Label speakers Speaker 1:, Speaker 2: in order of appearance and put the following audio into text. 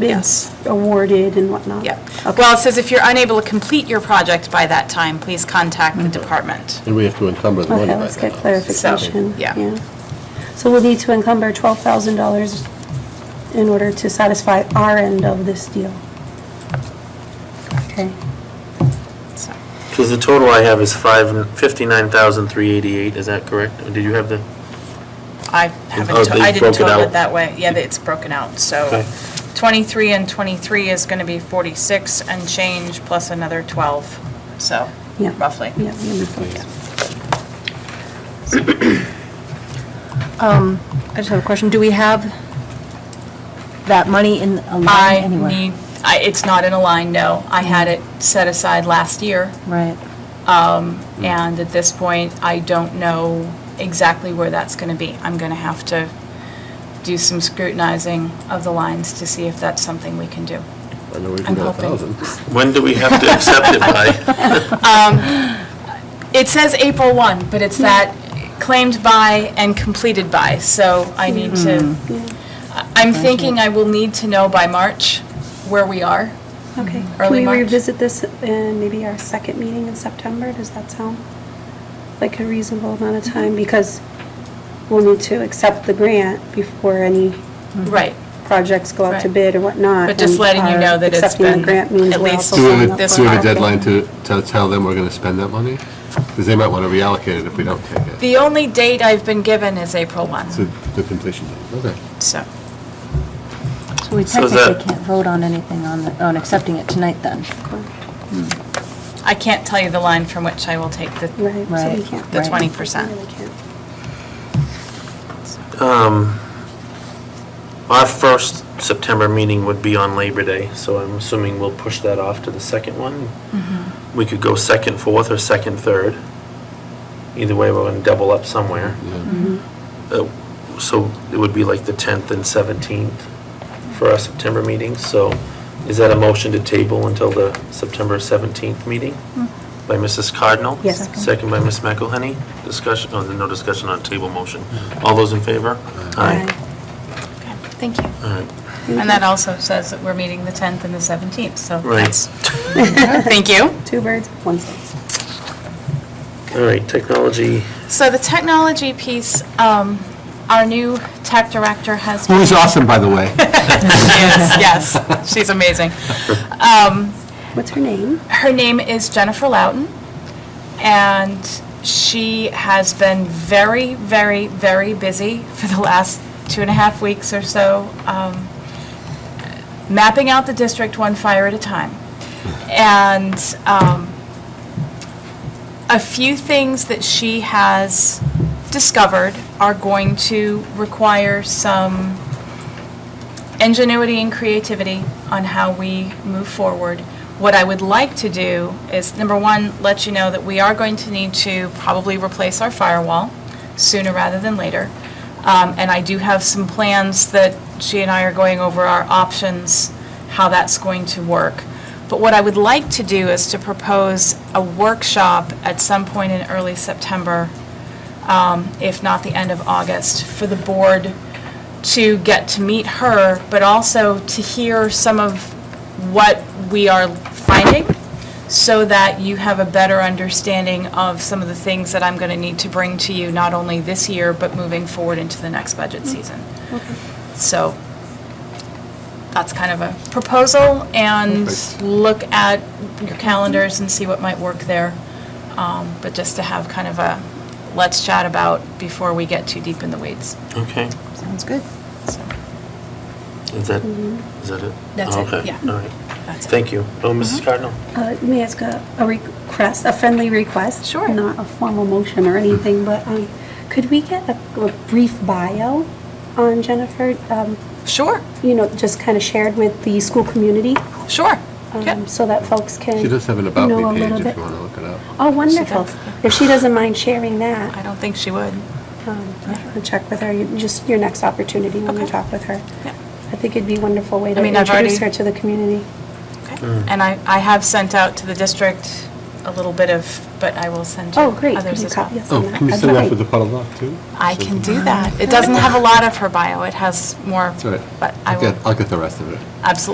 Speaker 1: been
Speaker 2: Yes.
Speaker 1: awarded and whatnot.
Speaker 2: Yep.
Speaker 1: Okay.
Speaker 2: Well, it says if you're unable to complete your project by that time, please contact the
Speaker 1: Mm-hmm.
Speaker 2: department.
Speaker 3: And we have to encumber the money
Speaker 1: Okay,
Speaker 3: by
Speaker 1: let's
Speaker 3: then.
Speaker 1: get clarification.
Speaker 2: yeah.
Speaker 1: So we'll need to encumber $12,000 in order to satisfy our end of this deal. Okay.
Speaker 2: So,
Speaker 4: Because the total I have is five, fifty-nine thousand, three eighty-eight, is that correct? Or Did you have the,
Speaker 2: I
Speaker 4: Oh,
Speaker 2: haven't, to-
Speaker 4: they
Speaker 2: I didn't
Speaker 4: broke it
Speaker 2: total it
Speaker 4: out.
Speaker 2: that way. Yeah, it's broken out, so
Speaker 4: Okay.
Speaker 2: 23 and 23 is going to be 46 and change plus another 12, so
Speaker 1: Yeah.
Speaker 2: roughly.
Speaker 1: Yeah, yeah, we thought-
Speaker 5: Um, I just have a question. Do we have that money in a line
Speaker 2: I
Speaker 5: anywhere?
Speaker 2: need, I- it's not in a line, no. I had it
Speaker 1: Mm-hmm.
Speaker 2: set aside last year.
Speaker 5: Right.
Speaker 2: And at this point, I don't know exactly where that's going to be. I'm going to have to do some scrutinizing of the lines to see if that's something we can do.
Speaker 3: I know we've
Speaker 2: I'm
Speaker 3: got a
Speaker 2: hoping.
Speaker 3: thousand.
Speaker 4: when do we have to accept it by?
Speaker 2: It says April 1, but it's that claimed by and completed by, so I need to, I- I'm thinking I will need to know by March where we are.
Speaker 1: Okay. Can
Speaker 2: Early
Speaker 1: we
Speaker 2: March.
Speaker 1: revisit this in maybe our second meeting in September? Does that sound like a reasonable amount of time? Because we'll need to accept the grant before any
Speaker 2: Right.
Speaker 1: projects go out to
Speaker 2: Right.
Speaker 1: bid or whatnot.
Speaker 2: But just
Speaker 1: and
Speaker 2: letting you
Speaker 1: our
Speaker 2: know that it's
Speaker 1: Accepting
Speaker 2: been
Speaker 1: the grant means
Speaker 2: at
Speaker 1: we're
Speaker 2: least
Speaker 1: also
Speaker 3: Do we
Speaker 1: signing
Speaker 3: have
Speaker 1: up
Speaker 3: a-
Speaker 2: this
Speaker 3: do we
Speaker 1: for
Speaker 3: have a
Speaker 1: our-
Speaker 3: deadline to, to tell them we're going to spend that money? Because they might want to reallocate it if we don't take it.
Speaker 2: The only date I've been given is April 1,
Speaker 3: So the completion date, okay.
Speaker 2: so.
Speaker 5: So we
Speaker 4: So is
Speaker 5: technically
Speaker 4: that-
Speaker 5: can't vote on anything on, the- on accepting it tonight then?
Speaker 2: I can't tell you the line from which I will take the
Speaker 1: Right, so we
Speaker 5: Right.
Speaker 1: can't.
Speaker 2: the
Speaker 5: Right.
Speaker 2: 20%.
Speaker 1: Really can't.
Speaker 4: Um, Our first September meeting would be on Labor Day, so I'm assuming we'll push that off to the second one. We could go second, fourth, or second, third. Either way, we're gonna double up somewhere. Uh, So it would be like the 10th and 17th for our September meetings. So is that a motion to table until the September 17th meeting by Mrs. Cardinal?
Speaker 1: Yes.
Speaker 4: Second by Ms. McElhenney. Discussion, oh, no discussion on table motion. All those in favor?
Speaker 2: Okay, Thank you.
Speaker 4: All right.
Speaker 2: And that also says that we're meeting the 10th and the 17th, so
Speaker 4: Right.
Speaker 2: that's... Thank you.
Speaker 1: Two birds, one stone.
Speaker 4: All right, technology.
Speaker 2: So the technology piece, um, our new tech director has been...
Speaker 3: Who is awesome, by the way.
Speaker 2: Yes, yes, she's amazing. Um,
Speaker 1: What's her name?
Speaker 2: Her name is Jennifer Loudon, and she has been very, very, very busy for the last two and a half weeks or so, um, mapping out the district one fire at a time. And um, a few things that she has discovered are going to require some ingenuity and creativity on how we move forward. What I would like to do is, number one, let you know that we are going to need to probably replace our firewall sooner rather than later. Um, And I do have some plans that she and I are going over our options, how that's going to work. But what I would like to do is to propose a workshop at some point in early September um, if not the end of August, for the board to get to meet her, but also to hear some of what we are finding, so that you have a better understanding of some of the things that I'm going to need to bring to you, not only this year, but moving forward into the next budget season. So that's kind of a proposal, and
Speaker 3: Perfect.
Speaker 2: look at your calendars and see what might work there. Um, But just to have kind of a, let's chat about before we get too deep in the weeds.
Speaker 4: Okay.
Speaker 5: Sounds good.
Speaker 2: So
Speaker 4: Is that, is that it?
Speaker 2: That's it,
Speaker 4: Okay,
Speaker 2: yeah.
Speaker 4: All right.
Speaker 2: that's it. Uh-huh.
Speaker 4: Thank you. Oh, Mrs. Cardinal?
Speaker 1: Uh, May I ask a a request, a friendly request?
Speaker 2: Sure.
Speaker 1: Not a formal motion or anything, but um, could we get a a brief bio on Jennifer? Um,
Speaker 2: Sure,
Speaker 1: You know, just kind of shared with the school community
Speaker 2: sure.
Speaker 1: um,
Speaker 2: Yep.
Speaker 1: so that folks can
Speaker 3: She does have an About
Speaker 1: know a
Speaker 3: Me
Speaker 1: little
Speaker 3: page if
Speaker 1: bit.
Speaker 3: you want to look it up.
Speaker 1: Oh, wonderful.
Speaker 2: does,
Speaker 1: If she doesn't mind sharing
Speaker 2: I
Speaker 1: that,
Speaker 2: don't think she would.
Speaker 1: um, I'll check with her, You- just your next opportunity when you
Speaker 2: Okay.
Speaker 1: talk with her.
Speaker 2: Yeah.
Speaker 1: I think it'd be a wonderful way to
Speaker 2: I mean, I've
Speaker 1: introduce her
Speaker 2: already-
Speaker 1: to the community.
Speaker 2: Okay.
Speaker 3: Hmm.
Speaker 2: And I, I have sent out to the district a little bit of, but I will send you
Speaker 1: Oh, great. Could
Speaker 2: others
Speaker 1: you
Speaker 2: as well.
Speaker 1: copy us on
Speaker 3: Oh,
Speaker 1: that?
Speaker 3: can you
Speaker 1: That'd
Speaker 3: send
Speaker 1: be
Speaker 3: that
Speaker 1: great.
Speaker 3: with the puddle dock, too?
Speaker 2: I can do that. It doesn't have a lot of her bio, it has more,
Speaker 3: That's all right.
Speaker 2: but I
Speaker 3: I'll get-
Speaker 2: will,
Speaker 3: I'll get the rest of it.
Speaker 2: absolutely.